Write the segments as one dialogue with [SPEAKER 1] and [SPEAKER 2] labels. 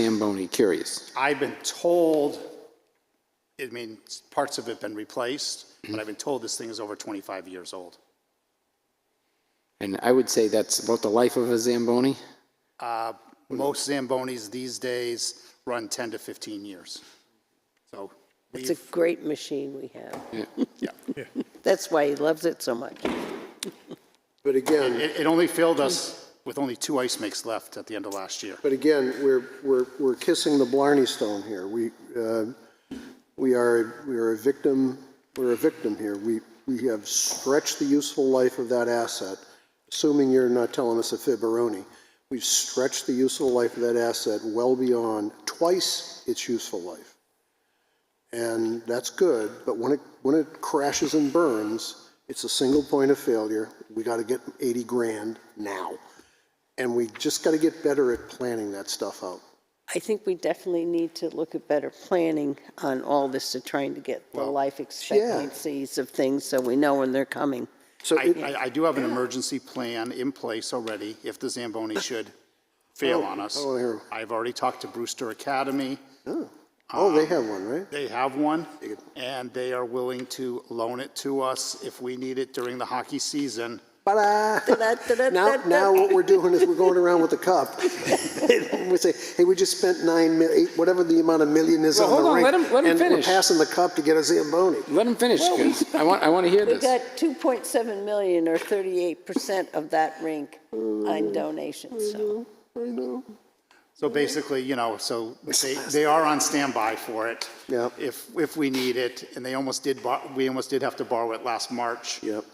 [SPEAKER 1] Zamboni, curious.
[SPEAKER 2] I've been told, I mean, parts of it been replaced, but I've been told this thing is over 25 years old.
[SPEAKER 1] And I would say that's about the life of a Zamboni.
[SPEAKER 2] Most Zambonis these days run 10 to 15 years. So
[SPEAKER 3] It's a
[SPEAKER 2] we've,
[SPEAKER 3] great machine we have.
[SPEAKER 2] yeah.
[SPEAKER 3] That's why he loves it so much.
[SPEAKER 4] But again,
[SPEAKER 2] It, it only filled us with only two ice makes left at the end of last year.
[SPEAKER 4] but again, we're, we're, we're kissing the Blarney Stone here. We, uh, we are, we are a victim, we're a victim here. We, we have stretched the useful life of that asset, assuming you're not telling us a fibberoni. We've stretched the useful life of that asset well beyond twice its useful life. And that's good, but when it, when it crashes and burns, it's a single point of failure. We got to get 80 grand now. And we just got to get better at planning that stuff out.
[SPEAKER 3] I think we definitely need to look at better planning on all this to trying to get the life expectancies of things so we know when they're coming.
[SPEAKER 4] So
[SPEAKER 2] I,
[SPEAKER 4] it-
[SPEAKER 2] I, I do have an emergency plan in place already if the Zamboni should fail on us.
[SPEAKER 4] oh, here.
[SPEAKER 2] I've already talked to Brewster Academy.
[SPEAKER 4] Oh,
[SPEAKER 1] um,
[SPEAKER 4] they have one, right?
[SPEAKER 2] They have one, and they are willing to loan it to us if we need it during the hockey season.
[SPEAKER 4] Ta-da! Now, now what we're doing is we're going around with the cup. We say, hey, we just spent nine mil, eight, whatever the amount of million is
[SPEAKER 1] Well,
[SPEAKER 4] on
[SPEAKER 1] hold
[SPEAKER 4] the
[SPEAKER 1] on,
[SPEAKER 4] rink.
[SPEAKER 1] let him- let him
[SPEAKER 4] And we're
[SPEAKER 1] finish.
[SPEAKER 4] passing the cup to get a Zamboni.
[SPEAKER 1] Let him finish, 'cause I want, I want to hear
[SPEAKER 3] We
[SPEAKER 1] this.
[SPEAKER 3] got 2.7 million or 38% of that rink on donations,
[SPEAKER 1] Mm-hmm.
[SPEAKER 3] so.
[SPEAKER 4] I know.
[SPEAKER 2] So basically, you know, so they, they are on standby for it.
[SPEAKER 4] Yep.
[SPEAKER 2] If, if we need it, and they almost did, bor- we almost did have to borrow it last March.
[SPEAKER 4] Yep.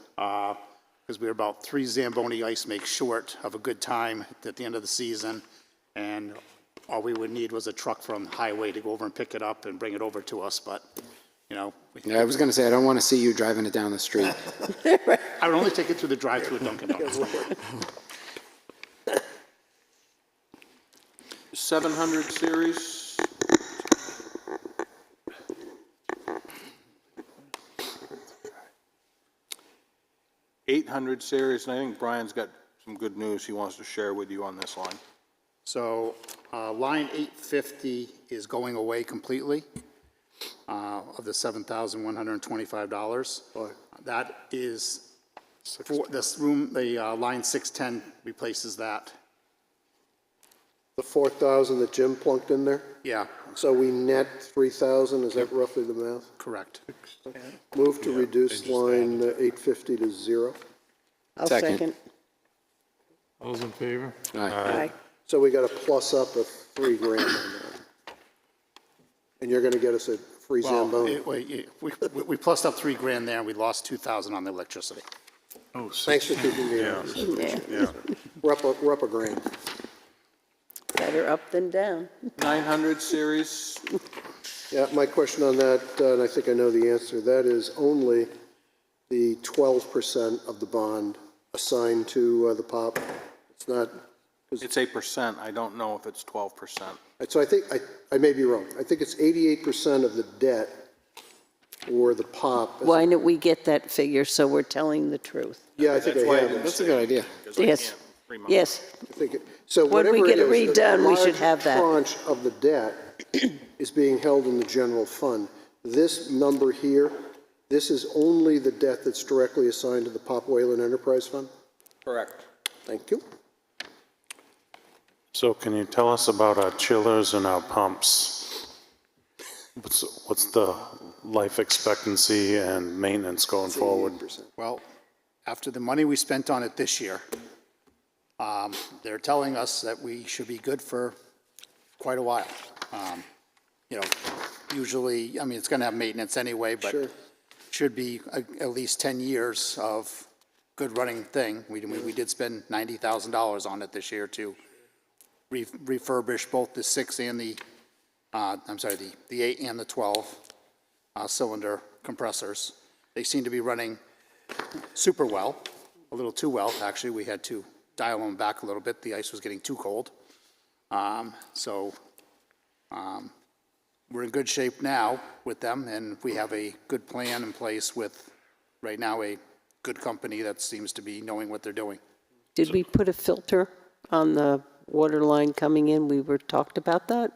[SPEAKER 2] Because we were about three Zamboni ice makes short of a good time at the end of the season. And all we would need was a truck from the highway to go over and pick it up and bring it over to us, but, you know, we-
[SPEAKER 1] Yeah, I was going to say, I don't want to see you driving it down the street.
[SPEAKER 2] I would only take it through the drive-through at Dunkin' Donuts.
[SPEAKER 5] 700 series. Eight hundred series, and I think Brian's got some good news he wants to share with you on this line.
[SPEAKER 2] So uh, line 850 is going away completely uh, of the $7,125. That is, for this room, the uh, line 610 replaces that.
[SPEAKER 4] The four thousand that Jim plunked in there?
[SPEAKER 2] Yeah,
[SPEAKER 4] So we net three thousand, is that roughly the math?
[SPEAKER 2] correct.
[SPEAKER 4] Move to reduce line eight fifty to zero.
[SPEAKER 3] I'll
[SPEAKER 1] Second.
[SPEAKER 3] second.
[SPEAKER 6] Those in favor?
[SPEAKER 1] All right.
[SPEAKER 3] Aye.
[SPEAKER 4] So we got a plus up of three grand on that. And you're gonna get us a free
[SPEAKER 2] Well,
[SPEAKER 4] Zamboni.
[SPEAKER 2] it- we, we- we plussed up three grand there, and we lost 2,000 on the electricity.
[SPEAKER 6] Oh,
[SPEAKER 4] Thanks for keeping me honest. We're up, a- we're up a grand.
[SPEAKER 3] Better up than down.
[SPEAKER 5] Nine hundred series,
[SPEAKER 4] Yeah, my question on that, uh, and I think I know the answer, that is only the twelve percent of the bond assigned to uh, the POP. It's not,
[SPEAKER 5] it's eight percent, I don't know if it's twelve percent.
[SPEAKER 4] so I think, I, I may be wrong. I think it's eighty-eight percent of the debt or the POP.
[SPEAKER 3] Why don't we get that figure so we're telling the truth?
[SPEAKER 4] Yeah, I think I have it.
[SPEAKER 1] That's a good idea.
[SPEAKER 3] Yes, yes.
[SPEAKER 4] I think it- So
[SPEAKER 3] When we
[SPEAKER 4] whatever it
[SPEAKER 3] get it
[SPEAKER 4] is, a
[SPEAKER 3] redone, we should
[SPEAKER 4] large
[SPEAKER 3] have that.
[SPEAKER 4] Tranche of the debt is being held in the general fund. This number here, this is only the debt that's directly assigned to the Pop Whalen Enterprise Fund?
[SPEAKER 5] Correct.
[SPEAKER 4] Thank you.
[SPEAKER 7] So can you tell us about our chillers and our pumps? What's, what's the life expectancy and maintenance going forward?
[SPEAKER 2] Well, after the money we spent on it this year, um, they're telling us that we should be good for quite a while. Um, You know, usually, I mean, it's going to have maintenance anyway, but should be a- at least 10 years of good running thing. We we we did spend $90,000 on it this year to re- refurbish both the six and the, uh, I'm sorry, the the eight and the 12-cylinder compressors. They seem to be running super well, a little too well, actually. We had to dial them back a little bit. The ice was getting too cold. Um, So um, we're in good shape now with them, and we have a good plan in place with, right now, a good company that seems to be knowing what they're doing.
[SPEAKER 3] Did we put a filter on the water line coming in, we were talked about that?